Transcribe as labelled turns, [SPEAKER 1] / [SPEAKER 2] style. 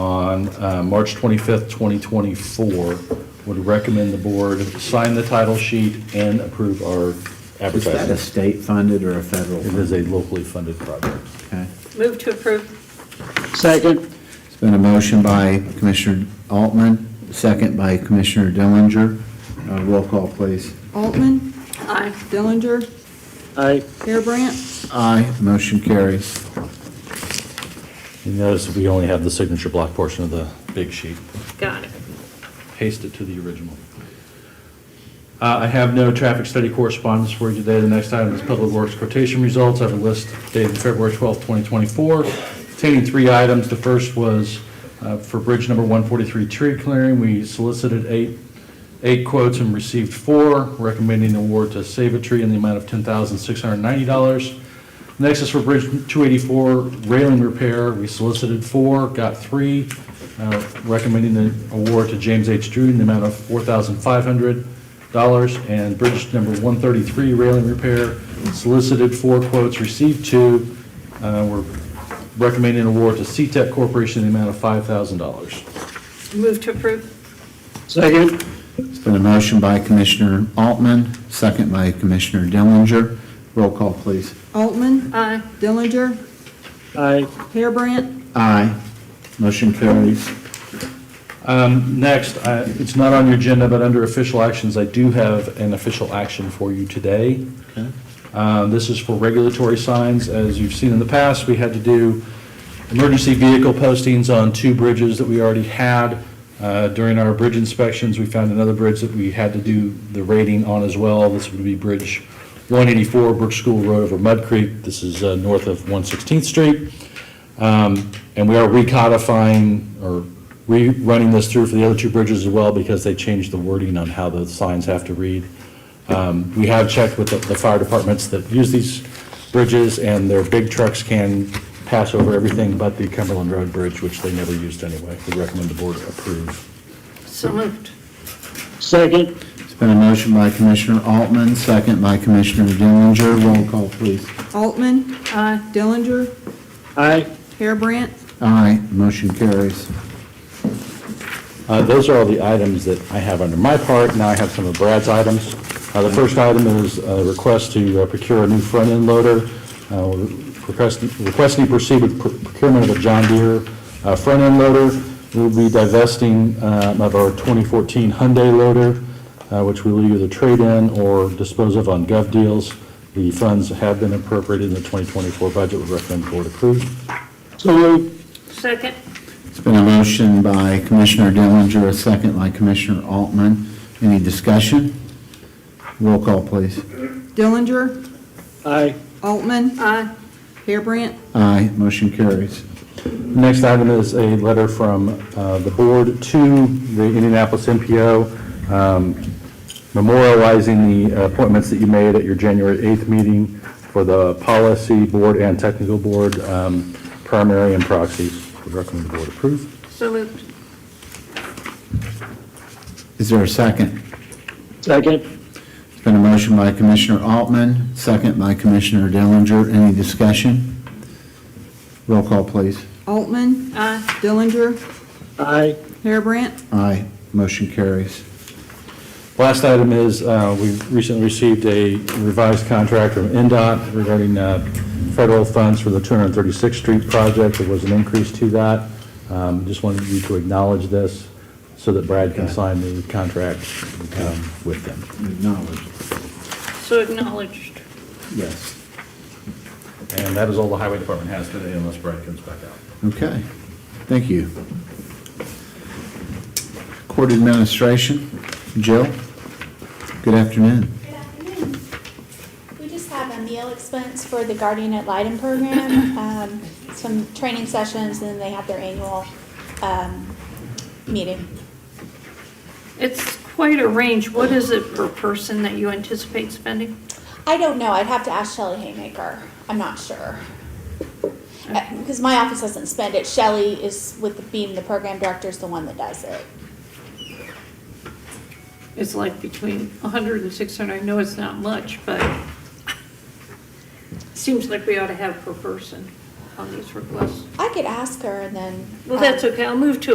[SPEAKER 1] on uh, March 25th, 2024, would recommend the board sign the title sheet and approve our
[SPEAKER 2] Is that a
[SPEAKER 1] advertising.
[SPEAKER 2] state-funded or a federal?
[SPEAKER 1] It is a locally funded project.
[SPEAKER 2] Okay.
[SPEAKER 3] Move to approve.
[SPEAKER 4] Second.
[SPEAKER 2] It's been a motion by Commissioner Altman, second by Commissioner Dillinger. Uh, Roll call, please.
[SPEAKER 5] Altman,
[SPEAKER 3] Aye.
[SPEAKER 5] Dillinger,
[SPEAKER 4] Aye.
[SPEAKER 5] Harebrant,
[SPEAKER 2] Aye. Motion carries.
[SPEAKER 1] You notice we only have the signature block portion of the big sheet.
[SPEAKER 3] Got it.
[SPEAKER 1] Paste it to the original. Uh, I have no traffic study correspondence for you today. The next item is Public Works quotation results. I have a list dated February 12, 2024, containing three items. The first was uh, for Bridge Number 143 tree clearing. We solicited eight, eight quotes and received four, recommending award to Save a Tree in the amount of $10,690. Next is for Bridge 284 railing repair. We solicited four, got three, uh, recommending the award to James H. Drew in the amount of $4,500. And Bridge number 133 railing repair, solicited four quotes, received two. Uh, We're recommending award to CTEC Corporation in the amount of $5,000.
[SPEAKER 3] Move to approve.
[SPEAKER 4] Second.
[SPEAKER 2] It's been a motion by Commissioner Altman, second by Commissioner Dillinger. Roll call, please.
[SPEAKER 5] Altman,
[SPEAKER 3] Aye.
[SPEAKER 5] Dillinger,
[SPEAKER 4] Aye.
[SPEAKER 5] Harebrant,
[SPEAKER 2] Aye. Motion carries.
[SPEAKER 1] Um, Next, I- it's not on your agenda, but under official actions, I do have an official action for you today. Uh, This is for regulatory signs. As you've seen in the past, we had to do emergency vehicle postings on two bridges that we already had. Uh, During our bridge inspections, we found another bridge that we had to do the rating on as well. This would be Bridge 184, Brook School Road over Mud Creek. This is uh, north of 116th Street. Um, And we are recodifying or rerunning this through for the other two bridges as well because they changed the wording on how the signs have to read. Um, We have checked with the the fire departments that use these bridges and their big trucks can pass over everything but the Cumberland Road Bridge, which they never used anyway. We recommend the board approve.
[SPEAKER 3] So moved.
[SPEAKER 4] Second.
[SPEAKER 2] It's been a motion by Commissioner Altman, second by Commissioner Dillinger. Roll call, please.
[SPEAKER 5] Altman,
[SPEAKER 3] Aye.
[SPEAKER 5] Dillinger,
[SPEAKER 4] Aye.
[SPEAKER 5] Harebrant,
[SPEAKER 2] Aye. Motion carries.
[SPEAKER 1] Uh, Those are all the items that I have under my part. Now I have some of Brad's items. Uh, The first item is a request to uh, procure a new front-end loader. Uh, request- Requesting to proceed with proc- procurement of a John Deere uh, front-end loader. We'll be divesting um, of our 2014 Hyundai loader, uh, which we will either trade in or dispose of on gov deals. The funds have been appropriated in the 2024 budget. We recommend board approve.
[SPEAKER 4] So moved.
[SPEAKER 3] Second.
[SPEAKER 2] It's been a motion by Commissioner Dillinger, a second by Commissioner Altman. Any discussion? Roll call, please.
[SPEAKER 5] Dillinger,
[SPEAKER 4] Aye.
[SPEAKER 5] Altman,
[SPEAKER 3] Aye.
[SPEAKER 5] Harebrant,
[SPEAKER 2] Aye. Motion carries.
[SPEAKER 1] Next item is a letter from uh, the board to the Indianapolis MPO um, memorializing the appointments that you made at your January 8th meeting for the policy board and technical board, um, primary and proxies. We recommend the board approve.
[SPEAKER 3] So moved.
[SPEAKER 2] Is there a second?
[SPEAKER 4] Second.
[SPEAKER 2] It's been a motion by Commissioner Altman, second by Commissioner Dillinger. Any discussion? Roll call, please.
[SPEAKER 5] Altman,
[SPEAKER 3] Aye.
[SPEAKER 5] Dillinger,
[SPEAKER 4] Aye.
[SPEAKER 5] Harebrant,
[SPEAKER 2] Aye. Motion carries.
[SPEAKER 1] Last item is, uh, we recently received a revised contract from NDOT regarding uh, federal funds for the 236th Street project. There was an increase to that. Um, Just wanted you to acknowledge this so that Brad can sign the contract um, with them.
[SPEAKER 2] Acknowledged.
[SPEAKER 3] So acknowledged.
[SPEAKER 2] Yes.
[SPEAKER 1] And that is all the highway department has today unless Brad comes back out.
[SPEAKER 2] Okay. Thank you. Court Administration, Jill, good afternoon.
[SPEAKER 6] Good afternoon. We just have a meal expense for the Guardian at Lighten program, um, some training sessions, and then they have their annual, um, meeting.
[SPEAKER 3] It's quite a range. What is it per person that you anticipate spending?
[SPEAKER 6] I don't know, I'd have to ask Shelley Haymaker, I'm not sure. Uh, Because my office doesn't spend it, Shelley is with, being the program director is the one that does it.
[SPEAKER 3] It's like between 100 and 600. I know it's not much, but seems like we ought to have per person on these requests.
[SPEAKER 6] I could ask her and then.
[SPEAKER 3] Well, that's
[SPEAKER 6] um,
[SPEAKER 3] okay. I'll move to